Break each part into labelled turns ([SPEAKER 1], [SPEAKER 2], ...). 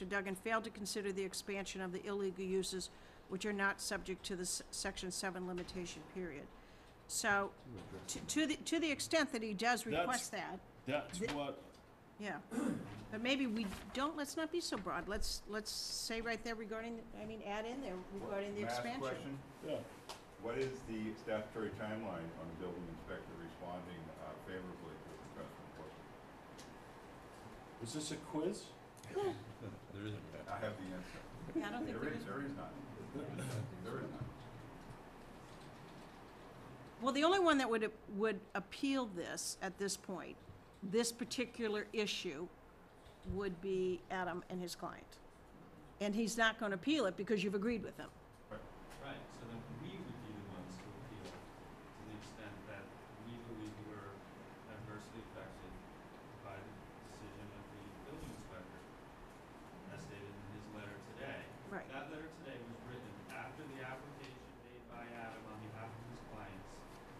[SPEAKER 1] Mr. Duggan failed to consider the expansion of the illegal uses which are not subject to the s- Section 7 limitation period. So, to- to the, to the extent that he does
[SPEAKER 2] That's-
[SPEAKER 1] request that,
[SPEAKER 2] That's
[SPEAKER 1] The-
[SPEAKER 2] what,
[SPEAKER 1] yeah. But maybe we don't, let's not be so broad. Let's, let's say right there regarding, I mean, add in there regarding the
[SPEAKER 3] May I ask a
[SPEAKER 1] expansion.
[SPEAKER 3] question?
[SPEAKER 2] yeah,
[SPEAKER 3] What is the statutory timeline on the building inspector responding uh, favorably to the request for enforcement?
[SPEAKER 2] is this a quiz?
[SPEAKER 4] There isn't.
[SPEAKER 3] I have the answer.
[SPEAKER 1] Yeah, I don't think
[SPEAKER 3] There
[SPEAKER 1] there
[SPEAKER 3] is,
[SPEAKER 1] is.
[SPEAKER 3] there is none. There is none.
[SPEAKER 1] Well, the only one that would, would appeal this at this point, this particular issue, would be Adam and his client. And he's not gonna appeal it because you've agreed with him.
[SPEAKER 4] Right, so then we would be the ones to appeal to the extent that we believe we're adversely affected by the decision of the building inspector, as stated in his letter today.
[SPEAKER 1] Right.
[SPEAKER 4] That letter today was written after the application made by Adam on behalf of his clients.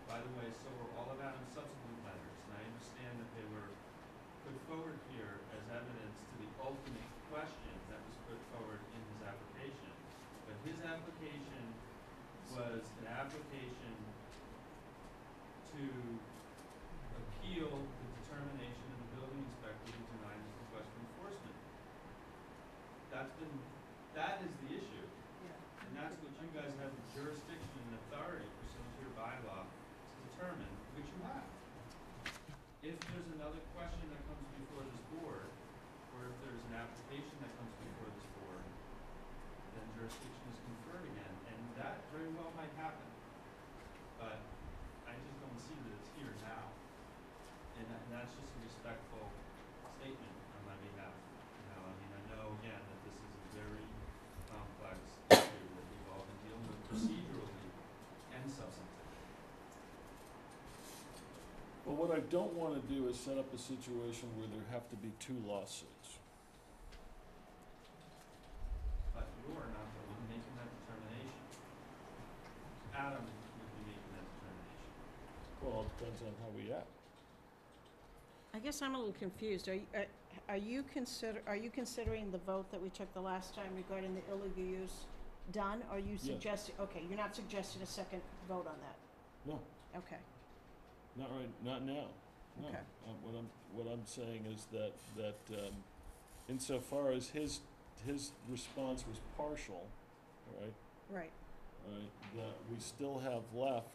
[SPEAKER 4] By the way, so were all of Adam's subsequent letters, and I understand that they were put forward here as evidence to the ultimate question that was put forward in his application. But his application was an application to appeal the determination of the building inspector who denied his request for enforcement. That's been, that is the issue. And that's what you guys have the jurisdiction and authority pursuant to your bylaw to determine, which you have. If there's another question that comes before this board, or if there's an application that comes before this board, then jurisdiction is conferred again, and that very well might happen. But I just don't see that it's here now. And that, and that's just a respectful statement on my behalf. You know, I mean, I know again that this is a very complex issue that we've all been dealing with procedurally and substantively.
[SPEAKER 2] Well, what I don't wanna do is set up a situation where there have to be two lawsuits.
[SPEAKER 4] But you are not the one making that determination. Adam would be making that determination.
[SPEAKER 2] Well, it depends on how we act.
[SPEAKER 1] I guess I'm a little confused. Are, you- are- are you consider, are you considering the vote that we took the last time regarding the illegal use done? Are you
[SPEAKER 2] Yes.
[SPEAKER 1] suggesting, okay, you're not suggesting a second vote on that?
[SPEAKER 2] No,
[SPEAKER 1] Okay,
[SPEAKER 2] not right, not now, no.
[SPEAKER 1] Okay.
[SPEAKER 2] Um, what I'm, what I'm saying is that, that, um, insofar as his, his response was partial, all right,
[SPEAKER 1] right.
[SPEAKER 2] all right, that we still have left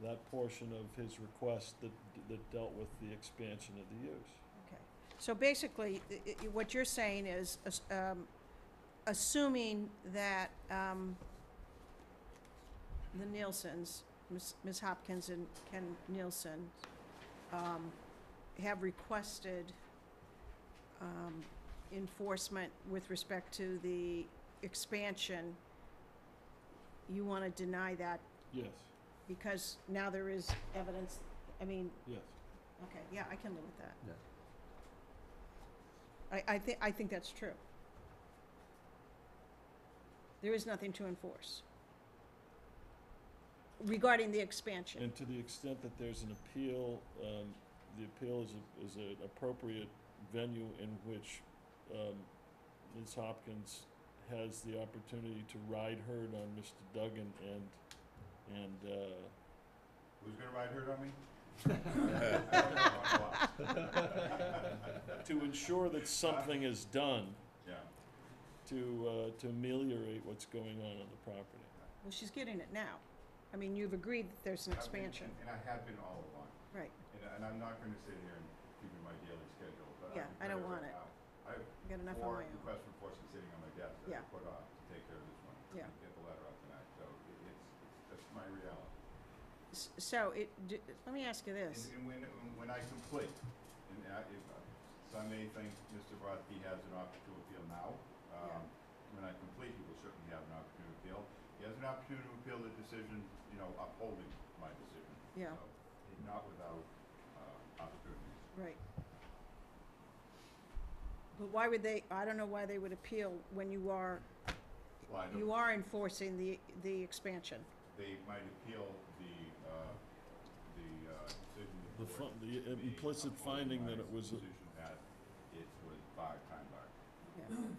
[SPEAKER 2] that portion of his request that, that dealt with the expansion of the use.
[SPEAKER 1] Okay, so basically, i- i- what you're saying is, as- um, assuming that, um, the Nielsen's, Ms. Ms. Hopkins and Ken Nielsen, um, have requested, um, enforcement with respect to the expansion, you wanna deny that
[SPEAKER 2] Yes,
[SPEAKER 1] because now there is evidence, I mean,
[SPEAKER 2] yes.
[SPEAKER 1] Okay, yeah, I can live with that.
[SPEAKER 3] Yeah.
[SPEAKER 1] I, I thi- I think that's true. There is nothing to enforce regarding the expansion.
[SPEAKER 2] And to the extent that there's an appeal, um, the appeal is, a- is an appropriate venue in which, um, Ms. Hopkins has the opportunity to ride herd on Mr. Duggan and, and, uh,
[SPEAKER 3] Who's gonna ride herd on me? I don't know, I'm lost.
[SPEAKER 2] to ensure that something is done
[SPEAKER 3] Yeah,
[SPEAKER 2] to, uh, to ameliorate what's going on on the property.
[SPEAKER 1] Well, she's getting it now. I mean, you've agreed that there's an
[SPEAKER 3] I've been-
[SPEAKER 1] expansion,
[SPEAKER 3] And I have been all along.
[SPEAKER 1] right?
[SPEAKER 3] And, and I'm not gonna sit here and keep in my daily schedule, but
[SPEAKER 1] Yeah, I
[SPEAKER 3] I can tell
[SPEAKER 1] don't
[SPEAKER 3] you
[SPEAKER 1] want
[SPEAKER 3] right
[SPEAKER 1] it.
[SPEAKER 3] now, I have
[SPEAKER 1] I got enough on my
[SPEAKER 3] four
[SPEAKER 1] own.
[SPEAKER 3] requests for enforcement sitting on my desk that
[SPEAKER 1] Yeah.
[SPEAKER 3] I put off to take care of this one.
[SPEAKER 1] Yeah.
[SPEAKER 3] and Get the letter out tonight, so it- it's, it's, that's my reality.
[SPEAKER 1] S- So it, d- let me ask you this.
[SPEAKER 3] And, and when, when I complete, and I, if, uh, some may think Mr. Brodsky has an opportunity to appeal now. Um, when I complete, he will certainly have an opportunity to appeal. He has an opportunity to appeal the decision, you know, upholding my decision.
[SPEAKER 1] Yeah.
[SPEAKER 3] So, it- Not without, uh, opportunities.
[SPEAKER 1] Right. But why would they, I don't know why they would appeal when you are,
[SPEAKER 3] Well, I
[SPEAKER 1] you
[SPEAKER 3] don't,
[SPEAKER 1] are enforcing the, the expansion.
[SPEAKER 3] they might appeal the, uh, the, uh, decision. of
[SPEAKER 2] The
[SPEAKER 3] court,
[SPEAKER 2] fin- the
[SPEAKER 3] the
[SPEAKER 2] implicit
[SPEAKER 3] upholding
[SPEAKER 2] finding
[SPEAKER 3] my
[SPEAKER 2] that it was, a-
[SPEAKER 3] Decision that it was by time bar.
[SPEAKER 1] Yeah. okay.